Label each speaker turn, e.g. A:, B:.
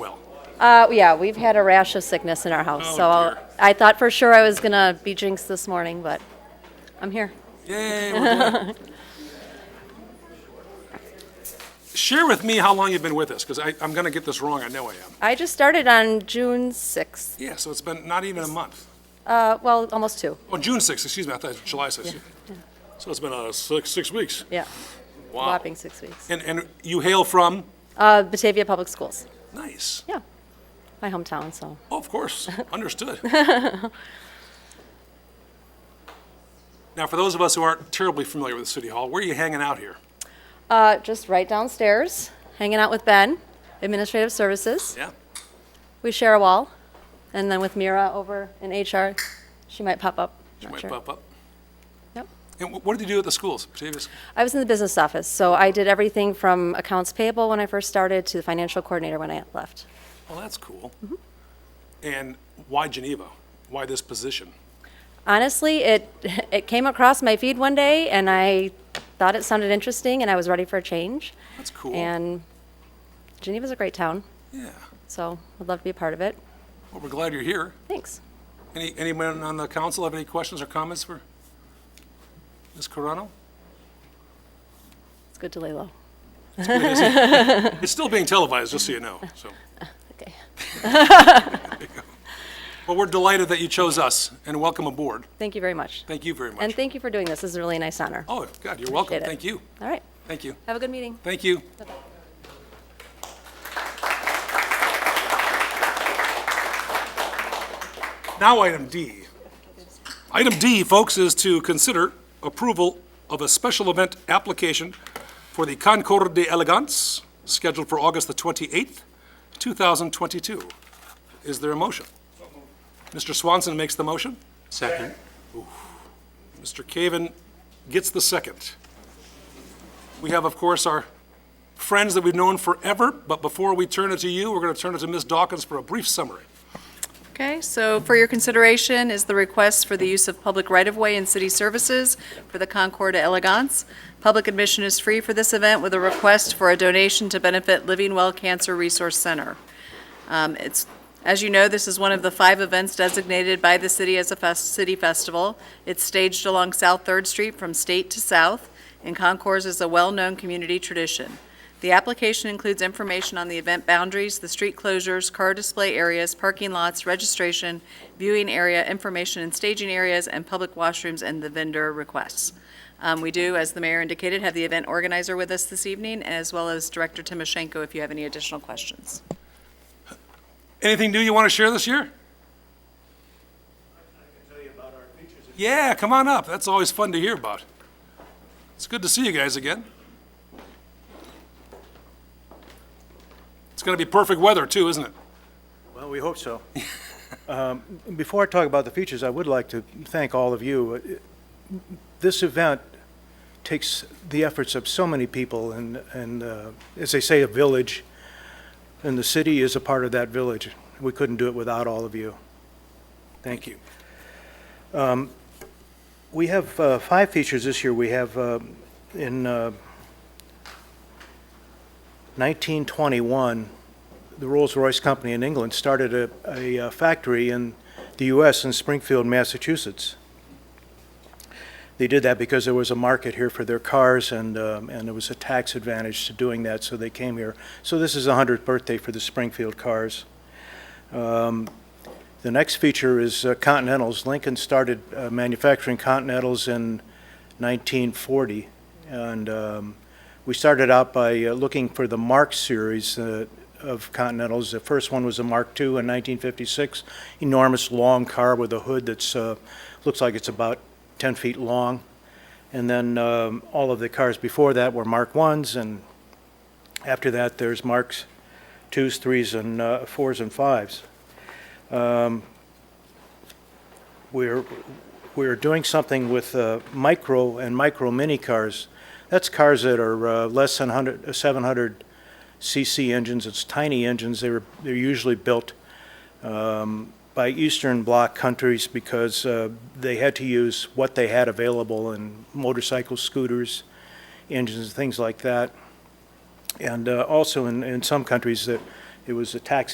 A: Uh, yeah, we've had a rash of sickness in our house,
B: Oh,
A: so I'll-
B: dear.
A: I thought for sure I was gonna be jinxed this morning, but I'm here.
B: Yay, we're doing it. Share with me how long you've been with us, because I'm going to get this wrong, I know I am.
A: I just started on June sixth.
B: Yeah, so it's been not even a month.
A: Uh, well, almost two.
B: Oh, June 6th, excuse me, I thought it was July 6th. So it's been uh, six, six weeks.
A: Yeah,
B: Wow.
A: whopping six weeks.
B: And, and you hail from?
A: Uh, Batavia Public Schools.
B: Nice.
A: Yeah, my hometown. So
B: Oh, of course, understood. Now, for those of us who aren't terribly familiar with City Hall, where are you hanging out here?
A: uh, just right downstairs, hanging out with Ben, Administrative Services.
B: Yeah?
A: We share a wall, and then with Mira over in HR, she might pop up.
B: She
A: Not
B: might
A: sure.
B: pop up.
A: Yep.
B: And wh- what did you do at the schools, Batavia?
A: I was in the business office, so I did everything from accounts payable when I first started to the financial coordinator when I left.
B: Well, that's cool. And why Geneva? Why this position?
A: Honestly, it it came across my feed one day, and I thought it sounded interesting, and I was ready for a change.
B: That's cool.
A: And Geneva's a great town,
B: Yeah.
A: so I'd love to be a part of it.
B: Well, we're glad you're here.
A: Thanks.
B: Any, anyone on the council have any questions or comments for Ms. Corano?
A: It's good to lay low.
B: It's still being televised, just so you know, so.
A: Okay.
B: Well, we're delighted that you chose us, and welcome aboard.
A: Thank you very much.
B: Thank you very much.
A: And thank you for doing this. This is a really nice honor.
B: Oh, God, you're welcome.
A: Appreciate it.
B: Thank you.
A: All right.
B: Thank you.
A: Have a good meeting.
B: Thank you. Now, item D. Item D, folks, is to consider approval of a special event application for the Concours de Elegance, scheduled for August the 28th, 2022. Is there a motion? Mr. Swanson makes the motion.
C: Second.
B: Mr. Caven gets the second. We have, of course, our friends that we've known forever, but before we turn it to you, we're going to turn it to Ms. Dawkins for a brief summary.
D: Okay, so for your consideration is the request for the use of public right-of-way and city services for the Concord Elegance. Public admission is free for this event with a request for a donation to benefit Living Well Cancer Resource Center. Um, It's, as you know, this is one of the five events designated by the city as a fes- city festival. It's staged along South Third Street from state to south, and Concours is a well-known community tradition. The application includes information on the event boundaries, the street closures, car display areas, parking lots, registration, viewing area, information and staging areas, and public washrooms, and the vendor requests. Um, We do, as the mayor indicated, have the event organizer with us this evening, as well as Director Timoshenko, if you have any additional questions.
B: Anything new you want to share this year? Yeah, come on up. That's always fun to hear about. It's good to see you guys again. It's going to be perfect weather, too, isn't it?
C: Well, we hope so. Um, Before I talk about the features, I would like to thank all of you. This event takes the efforts of so many people, and, and uh, as they say, a village, and the city is a part of that village. We couldn't do it without all of you. Thank you. Um, We have uh, five features this year. We have uh, in uh, 1921, the Rolls-Royce Company in England started a, a uh, factory in the U.S. in Springfield, Massachusetts. They did that because there was a market here for their cars, and, um, and there was a tax advantage to doing that, so they came here. So this is the 100th birthday for the Springfield cars. Um, the next feature is uh, Continentals. Lincoln started uh, manufacturing Continentals in 1940, and um, we started out by uh, looking for the Mark series uh, of Continentals. The first one was a Mark II in 1956, enormous long car with a hood that's, uh, looks like it's about 10 feet long. And then um, all of the cars before that were Mark Is, and after that, there's Marks Twos, Threes, and uh, Fours and Fives. Um, We're, we're doing something with uh, micro and micro mini cars. That's cars that are uh, less than 100, uh, 700 cc engines. It's tiny engines. They were, they're usually built um, by Eastern Bloc countries because uh, they had to use what they had available in motorcycles, scooters, engines, things like that. And uh, also in, in some countries that it was a tax